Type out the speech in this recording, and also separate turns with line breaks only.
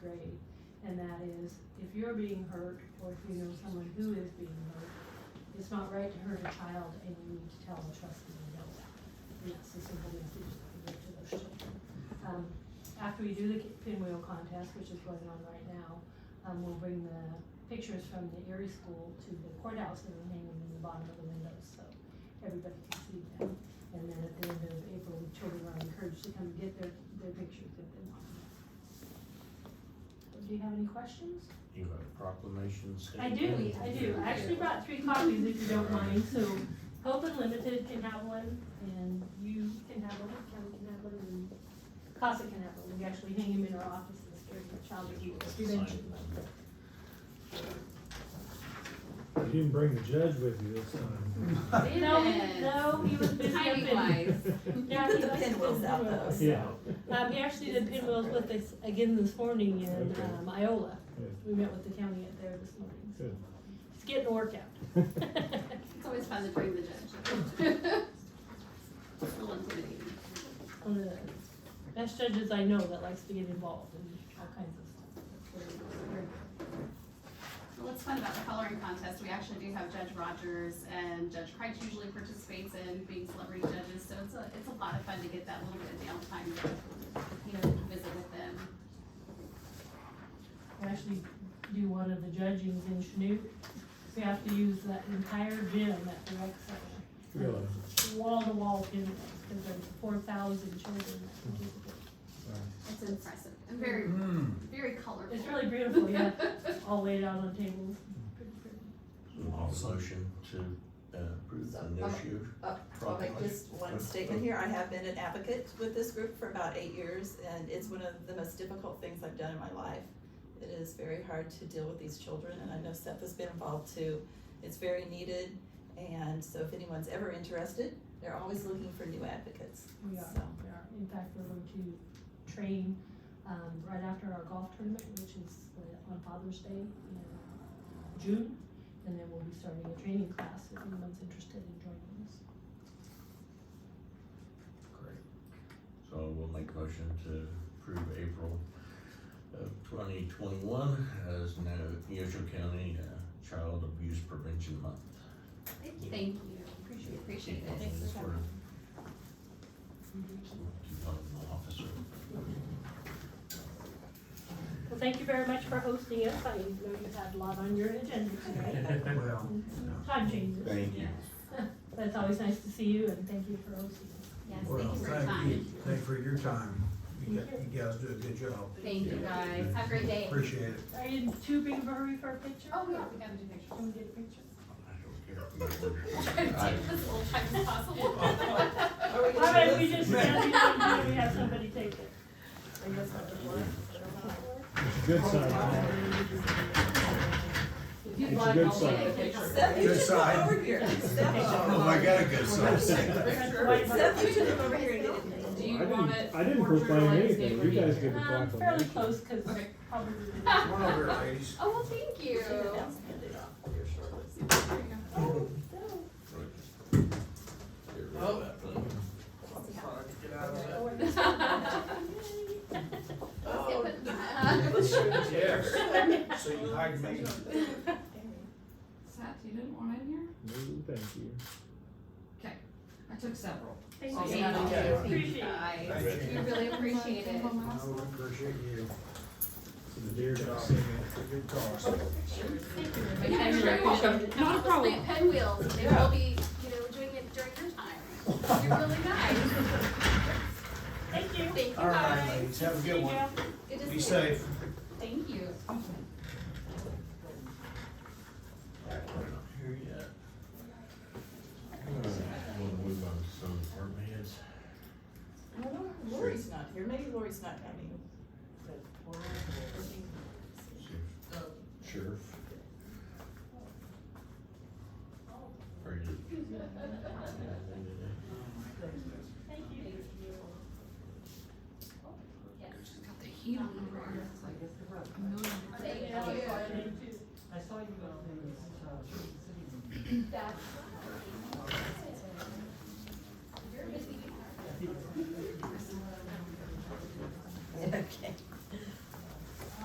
you're being hurt, or if you know someone who is being hurt, it's not right to hurt a child, and you need to tell the trustee you know that. And that's the simple message that we give to those children. Um, after we do the pinwheel contest, which is going on right now, um, we'll bring the pictures from the Erie School to the courthouse and hang them in the bottom of the windows, so everybody can see them. And then at the end of April, the children are encouraged to come get their, their pictures if they want. Do you have any questions?
You have a proclamation
I
statement?
do, I do. I actually brought three copies if you don't mind, so Hope Unlimited can have one, and you can have one, Kelly can have one, and Casa can have one. We actually hang them in our offices during the child abuse prevention. month.
You didn't bring the judge with you this time.
No, we- no, he was busy up
Timing
in.
wise.
Yeah, he
The
was
pinwheels
busy
out
doing
though.
it.
Yeah.
Um, he actually did pinwheels with us again this morning in,
Okay.
um, Iola.
Good.
We met with the county out there this morning, so
Good.
it's getting a workout.
It's always fun to bring the judge. It's a little intimidating.
one of the best judges I know that likes to get involved in all kinds of stuff. That's really good.
Well, What's fun about the coloring contest, we actually do have Judge Rogers and Judge Kreitz usually participates in being celebrity judges, so it's a, it's a lot of fun to get that little bit of downtime to, you know, visit with them.
We actually do one of the judgings in Chanute. We have to use that entire gym at the rec center,
Really?
wall to wall pinwheels, because there's four thousand children that participate.
It's impressive and very, very colorful.
It's really beautiful, yeah, all laid out on tables. Pretty, pretty.
I'll motion to uh, approve the no shoot.
Uh, I'll make just one statement here. I have been an advocate with this group for about eight years, and it's one of the most difficult things I've done in my life. It is very hard to deal with these children, and I know Seth has been involved too. It's very needed, and so if anyone's ever interested, they're always looking for new advocates.
We are,
So.
we are. In fact, we're going to train, um, right after our golf tournament, which is uh, on Father's Day in uh, June. And then we'll be starting a training class if anyone's interested in joining us.
Great. So we'll make a motion to approve April of twenty twenty-one as no Neosho County uh, Child Abuse Prevention Month.
Thank you. Thank you. Appreciate, appreciate it.
Thanks for
That's
coming.
where- Keep on the officer.
Well, thank you very much for hosting us. I know you've had a lot on your agenda today.
Well,
Time changes.
Thank you.
But it's always nice to see you and thank you for hosting us.
Yes, thank
well,
you for your
thank you,
time.
thank you for your time. You got- you guys do a good job.
Thank you guys. Have a great day.
Appreciate it.
Are you in too big of a hurry for a picture?
Oh, yeah, we gotta do pictures.
Can we get a picture?
I don't care if you order it. I-
Take this little time as possible.
Are we
All
gonna do
right, we
this?
just, we have we have somebody take it.
Are you guys not gonna do it?
Good side.
If you'd
It's a
like,
good
I'll
sign.
take a picture.
Seth, you
Good
should come
side.
over here.
Oh,
Seth,
I got a good side.
Seth, you should come over here and get it.
Do
I
you
didn't-
want it?
I didn't
portrait or
proclaim
landscape
anything.
or
You guys
nature?
did.
Um, fairly close, cause
Okay.
probably.
One over, ladies.
Oh, well, thank you.
Get rid
Oh.
of that thing.
Yes. So you hide me.
Seth, you didn't want in here?
No, thank you.
I took several.
Thank you.
Thank
you.
Appreciate it.
Guys, We really appreciate it.
No, we appreciate you.
So the deer
Good job.
dogs.
Good cause.
Yeah, you're very welcome.
Not a
Also
problem.
plant pinwheels, and they will be, you know, doing it during your time. You're really nice.
Thank you.
Thank you
All right,
guys.
ladies, have a
See
good
you,
one.
Jeff.
Good to
Be
see you.
safe.
Thank you.
We're not here yet. Uh, We'll move on to some department heads.
Lori's not here, maybe Lori's not coming.
Sheriff. Are you?
Got the heat on over here. It's like,
네.
Thank you.
Yeah.
That's